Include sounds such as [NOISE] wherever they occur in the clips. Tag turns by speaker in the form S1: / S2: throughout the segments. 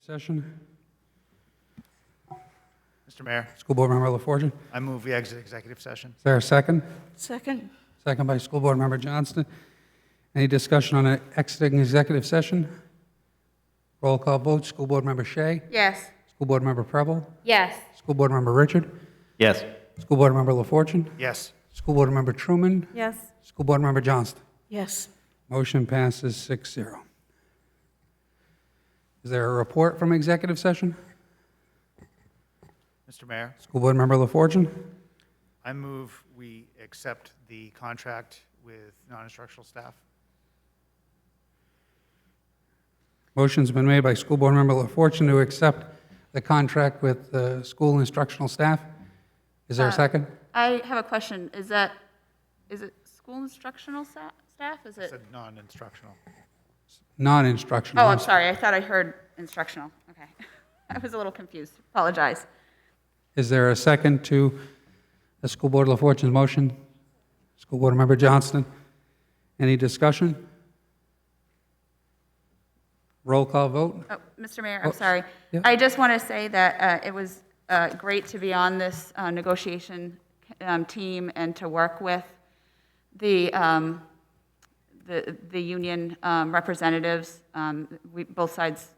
S1: session.
S2: Mr. Mayor,
S1: School Board Member LaForgia.
S2: I move we exit executive session.
S1: Is there a second?
S3: Second.
S1: Second by School Board Member Johnston. Any discussion on uh, exiting executive session? Roll call vote, School Board Member Shea,
S3: Yes.
S1: School Board Member Preble,
S3: Yes.
S1: School Board Member Richard,
S4: Yes.
S1: School Board Member LaForgia,
S2: Yes.
S1: School Board Member Truman,
S3: Yes.
S1: School Board Member Johnston.
S3: Yes.
S1: Motion passes 6-0. Is there a report from executive session?
S2: Mr. Mayor,
S1: School Board Member LaForgia.
S2: I move we accept the contract with non-instructional staff.
S1: Motion's been made by School Board Member LaFortune to accept the contract with the school instructional staff. Is there a
S5: Uh,
S1: second?
S5: I have a question. Is that, is it school instructional sta- staff? Is
S2: I
S5: it?
S2: said non-instructional.
S1: Non-instructional.
S5: Oh, I'm sorry. I thought I heard instructional. Okay. [LAUGHS] I was a little confused. Apologize.
S1: Is there a second to the School Board LaFortune's motion? School Board Member Johnston, any discussion? Roll call vote?
S5: Oh, Mr. Mayor,
S1: Oh,
S5: I'm sorry.
S1: yeah.
S5: I just want to say that uh, it was uh, great to be on this uh, negotiation um, team and to work with the, um, the, the union um, representatives. Um, We, both sides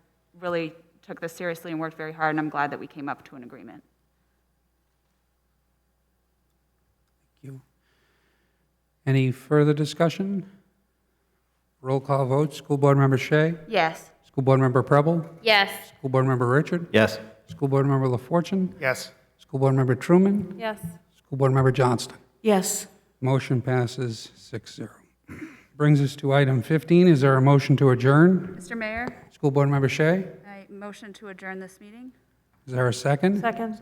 S5: really took this seriously and worked very hard, and I'm glad that we came up to an agreement.
S1: You. Any further discussion? Roll call vote, School Board Member Shea,
S5: Yes.
S1: School Board Member Preble,
S3: Yes.
S1: School Board Member Richard,
S4: Yes.
S1: School Board Member LaFortune,
S2: Yes.
S1: School Board Member Truman,
S5: Yes.
S1: School Board Member Johnston.
S3: Yes.
S1: Motion passes 6-0. Brings us to item 15. Is there a motion to adjourn?
S5: Mr. Mayor,
S1: School Board Member Shea,
S5: I motion to adjourn this meeting.
S1: is there a second?
S3: Second.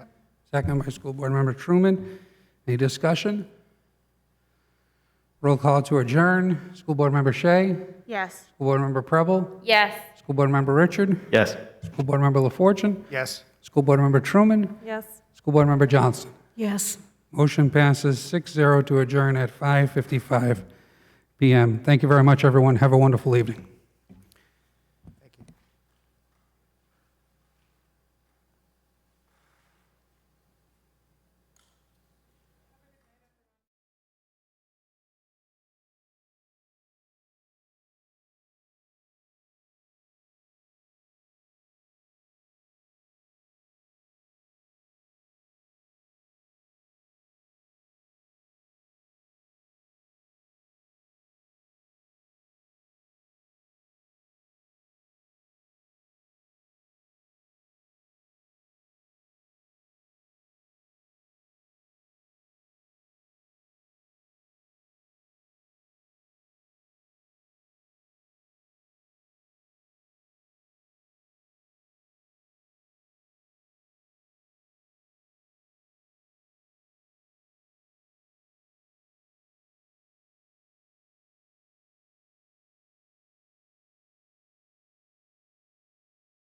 S1: Second by School Board Member Truman. Any discussion? Roll call to adjourn. School Board Member Shea,
S5: Yes.
S1: School Board Member Preble,
S3: Yes.
S1: School Board Member Richard,
S4: Yes.
S1: School Board Member LaFortune,
S2: Yes.
S1: School Board Member Truman,
S3: Yes.
S1: School Board Member Johnston.
S3: Yes.
S1: Motion passes 6-0 to adjourn at 5:55 PM. Thank you very much, everyone. Have a wonderful evening.